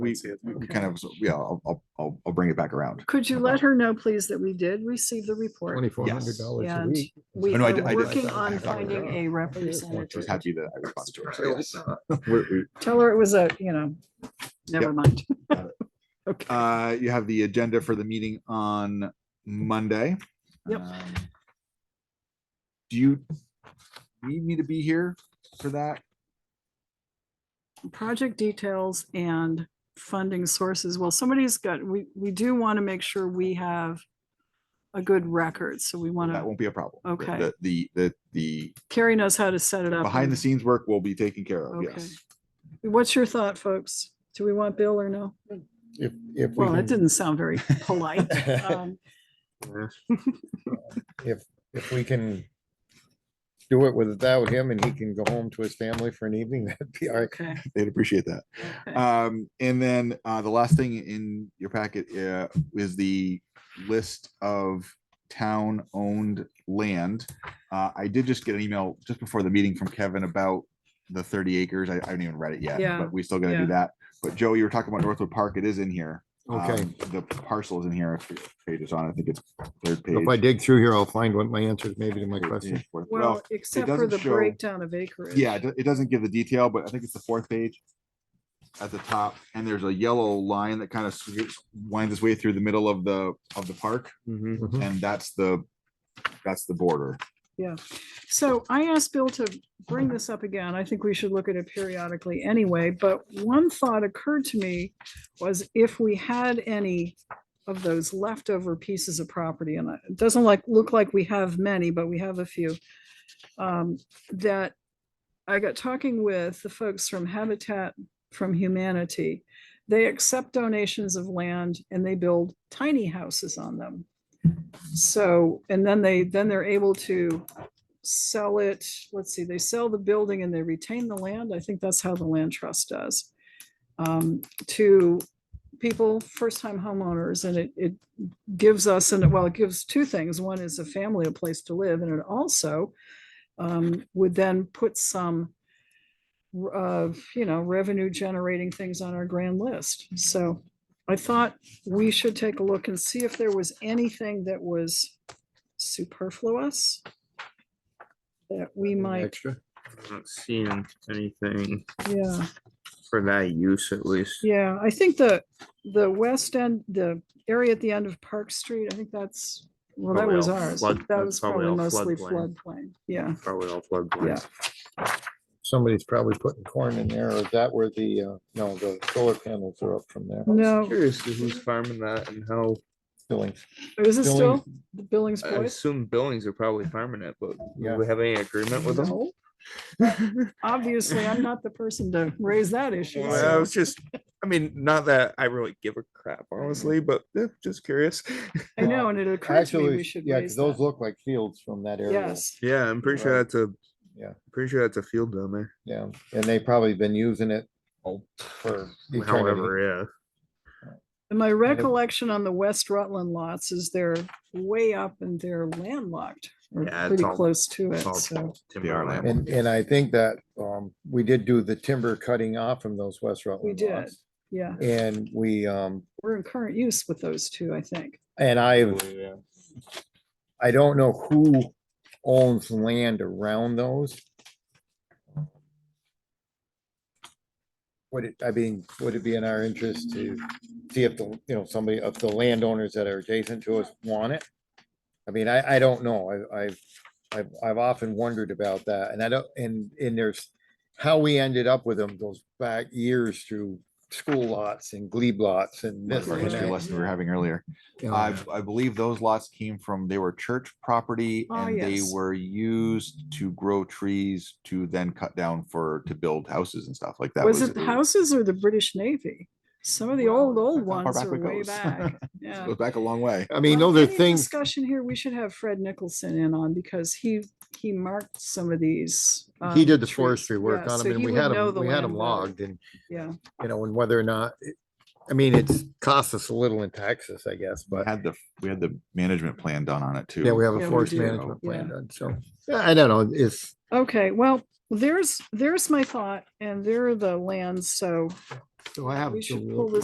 We, see it. we kind of, yeah, I'll, I'll- I'll, I'll bring it back around. Could you let her know, please, that we did receive the report? Twenty-four hundred dollars a And week. We Oh, no, I did- I are did- working I on have that finding written a She's representative. happy that I responded to her. so yes. We- we- Tell her it was a, you know, never mind. Got Okay, Uh, you have the agenda for the meeting on Monday. Yep. Um, Do you need me to be here for that? project details and funding sources. Well, somebody's got, we, we do want to make sure we have a good record, so we want That to, won't be a problem. The- Okay. The, the, the, the Carrie knows how to set it up. behind the and- scenes work will be taken care of, Okay. yes. What's your thought, folks? Do we want Bill or no? If, if we Well, that can, didn't sound very polite. Um, if we can do it without him and he can go home to his family for an evening, that'd be all right. Okay. They'd appreciate that. Okay. Um, and then, uh, the last thing in your packet, uh, is the list of town-owned land. Uh, I did just get an email just before the meeting from Kevin about the thirty acres. I, I haven't even read it yet, Yeah, but we still gotta yeah. do that. But Joe, you were talking about Northwood Park. It is in here. Okay, Um, The parcel is in here. It's- Page is on, I think it's third page. if I dig through here, I'll find what my answers maybe to my Third question. page, fourth- Well, except for doesn't the show- breakdown of acreage. Yeah, it do- it doesn't give the detail, but I think it's the fourth page at the top, and there's a yellow line that kind of winds its way through the middle of the, of the park, Mhm. and that's the, that's the border. So I asked Bill to bring this up again. I think we should look at it periodically anyway, but one thought occurred to me was if we had any of those leftover pieces of property, and it doesn't like, look like we have many, but we have a few. um, That I got talking with the folks from Habitat from Humanity. They accept donations of land and they build tiny houses on them. So, and then they, then they're able to sell it, let's see, they sell the building and they retain the land. I think that's how the land trust does. um, To people, first-time homeowners, and it, it gives us, and well, it gives two things. One is a family a place to live, and it also um, would then put some r- uh, you know, revenue generating things on our grand list. So I thought we should take a look and see if there was anything that was superfluous that we might, Extra. I'm not seeing anything yeah. for that use at least. Yeah, I think the, the west end, the area at the end of Park Street, I think that's, well, that Probably was all ours. flood- but That that's was probably probably all mostly floodplain. floodplain. Yeah, Probably all floodplains. Somebody's probably putting corn in there. Is that where the, uh, no, the solar panels are up from there? no, Curious to who's farming that and how, Billings. is it Billings- still the Billings I boys? assume Billings are probably farming it, but Yeah. do we have any agreement with them? No. Obviously, I'm not the person to raise that issue. Well, I so- was just, I mean, not that I really give a crap, honestly, but eh, just curious. I know, and it occurred to me Actually, we should yeah, 'cause raise those that. look like fields from that area. Yes, Yeah, I'm pretty sure Right. that's a. Yeah. Pretty sure that's a field down there. Yeah, and they probably been using it for. eternity. However, and my recollection on the West Rutland lots is they're way up and they're landlocked. or Yeah, it's Pretty all- close to yeah. it, it's all so, timberland. timberland. And, and I think that, um, we did do the timber cutting off from those West Rutland did. lots. yeah, And we, um, we're in current use with those two, I think. and I, Yeah. I don't know who owns land around those. Would it, I mean, would it be in our interest to see if the, you know, somebody of the landowners that are adjacent to us want it? I mean, I, I don't know. I, I've, I've, I've often wondered about that and I don't, and, and there's how we ended up with them goes back years through school lots and glebe lots and That's this our and history that. lesson we were having earlier. I, Uh, I believe those lots came from, they were church property Ah, and they yes. were used to grow trees to then cut down for, to build houses and stuff like that. Was it the houses or the British Navy? Some of the Well, old, that's ones how far ones back it are way goes. back. Yeah. Goes back a long way. I mean, Well, those are any things. Discussion here, we should have Fred Nicholson in on because he, he marked some of these. He um, did the trees. forestry work Yeah, on so them and he we would had know them, the we had them land better. logged and, Yeah, you know, and whether or not, it- I mean, it's cost us a little in taxes, I guess, but Had the, we had the management plan done on it too. yeah, we have Yeah, we a forest do. management Yeah. plan done, so. yeah, I don't know, it's, okay, well, there's, there's my thought and there are the lands, so So I have We should July- pull this